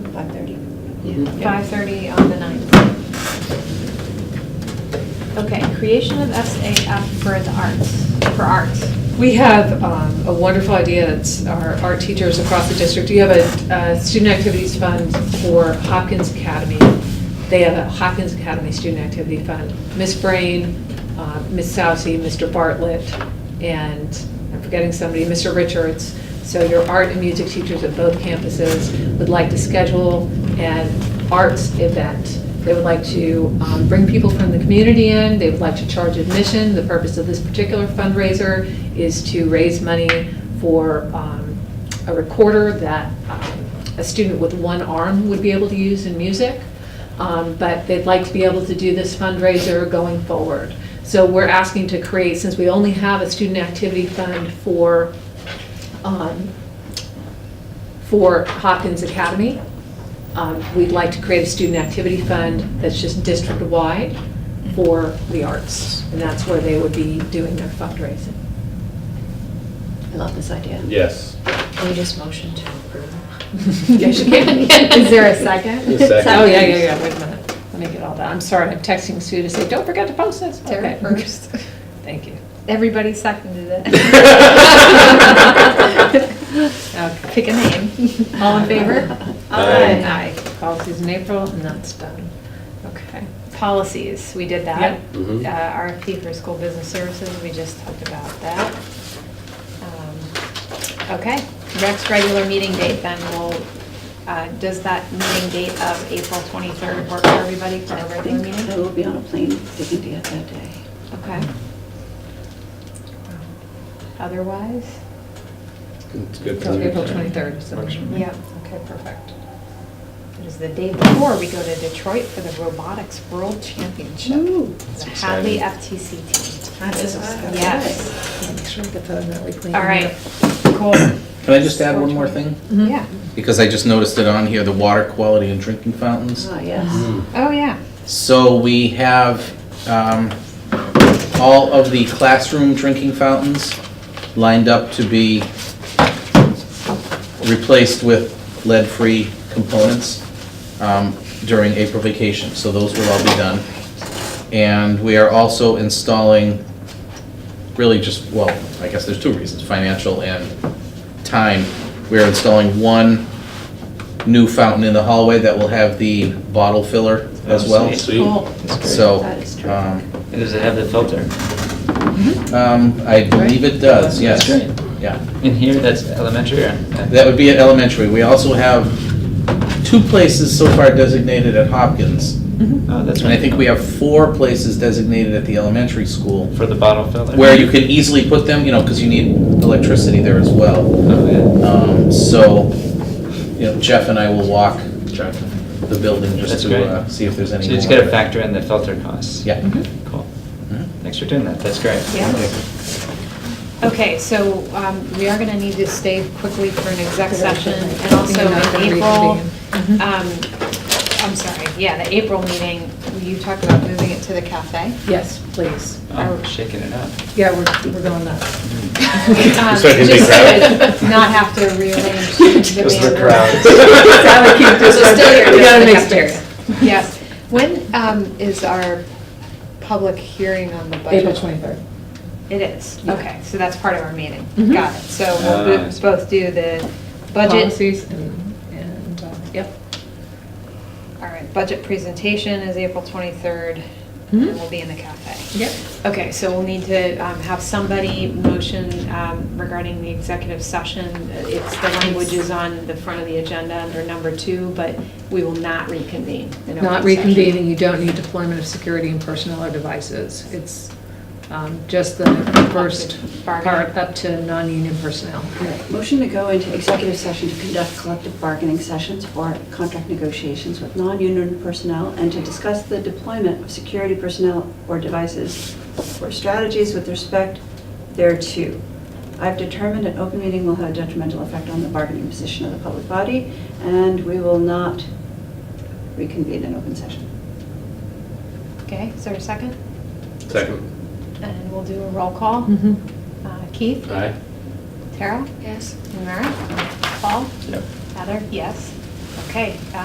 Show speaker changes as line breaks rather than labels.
5:30.
Yeah.
5:30 on the 9th. Okay, creation of SAF for the arts, for arts.
We have um, a wonderful idea that's our art teachers across the district. You have a uh, student activities fund for Hopkins Academy. They have a Hopkins Academy Student Activity Fund. Miss Brain, uh, Miss Sousy, Mr. Bartlett, and I'm forgetting somebody, Mr. Richards. So your art and music teachers at both campuses would like to schedule an arts event. They would like to um, bring people from the community in, they would like to charge admission. The purpose of this particular fundraiser is to raise money for um, a recorder that um, a student with one arm would be able to use in music. Um, But they'd like to be able to do this fundraiser going forward. So we're asking to create, since we only have a student activity fund for um, for Hopkins Academy. Um, We'd like to create a student activity fund that's just district-wide for the arts, and that's where they would be doing their fundraising.
I love this idea.
Yes.
Can we just motion to approve?
Yes, you can.
Is there a second?
A second.
Oh, yeah, yeah, yeah, wait a minute. Let me get all that. I'm sorry, I'm texting Sue to say, don't forget to post this.
Terry
Okay.
first.
Thank you.
Everybody seconded it.
Okay.
Pick a name. All in favor?
Aye.
Aye.
Policies in April, and that's done. Okay.
Policies, we did that.
Yep.
Uh,
Mhm.
RFP for school business services, we just talked about that. Um, Okay, next regular meeting date then will, uh, does that meeting date of April 23rd work for everybody for a
I
regular
think I
meeting?
will be on a plane to India that day.
Okay. Um, Otherwise?
It's good for
So
me.
April 23rd is the
Works for me.
Yep, okay, perfect. It is the day before we go to Detroit for the Robotics World Championship. The Hadley FTC team.
That is exciting.
Yes,
Make sure we get that in that weekly.
all right, Mm-hmm. cool.
Can I just add one more thing?
Mhm.
Yeah,
Because I just noticed it on here, the water quality and drinking fountains.
Ah, yes.
Mm.
oh, yeah.
So we have um, all of the classroom drinking fountains lined up to be replaced with lead-free components um, during April vacation, so those will all be done. And we are also installing, really just, well, I guess there's two reasons, financial and time. We're installing one new fountain in the hallway that will have the bottle filler as well.
Oh, sweet.
Cool.
That's great.
So,
That is
Oh,
true.
um,
And does it have the filter?
um, I believe it does, yes.
That's great.
Yeah,
In here, that's elementary or?
that would be at elementary. We also have two places so far designated at Hopkins.
Oh, that's
And I think we
wonderful.
have four places designated at the elementary school
For the bottle filler?
where you can easily put them, you know, because you need electricity there as well.
Oh,
Um, so, you know, Jeff and I will walk the building just
That's
to
great.
uh, see if there's
yeah.
any
So
more.
you just gotta factor in the filter costs?
Yeah.
Cool.
Mhm.
Thanks for doing that. That's great.
Yeah. Okay, so um, we are going to need to stay quickly for an exec session, and also in April, um, I'm sorry, yeah, the April meeting, you talked about moving it to the cafe.
Yes, please.
Oh, we're shaking it up.
Yeah, we're, we're going up.
Um,
So it can be
just so
crowded.
that Not have to rearrange the
Just the
band.
crowds.
Salad keep this
So still
one.
you're
We gotta
just the
make space.
Yes. When um, is our public hearing on the budget?
April twenty-third.
It is,
Yeah.
okay, Mm-hmm. so that's part of our meeting.
Mhm.
Got it. So we'll
Ah.
bo- both do the budget,
Policies and, and, uh, yep.
all right, budget presentation is April 23rd, and
Mhm.
we'll be in the cafe.
Yep.
Mm-hmm. Okay, so we'll need to um, have somebody motion um, regarding the executive session. It's, the language is on the front of the agenda under number two, but we will not reconvene. in open
Not
session.
reconvening, you don't need deployment of security and personnel or devices. It's um, just the first
Bargaining.
part up to non-union personnel.
All right. Motion to go into executive session to conduct collective bargaining sessions or contract negotiations with non-union personnel and to discuss the deployment of security personnel or devices or strategies with respect thereto. I've determined an open meeting will have a detrimental effect on the bargaining position of the public body, and we will not reconvene in open session.
Okay, is there a second?
Second.
And we'll do a roll call.
Mhm.
Uh, Keith?
Aye.
Tara? Yes. Mara? Paul?
Yep.
Heather? Yes. Okay,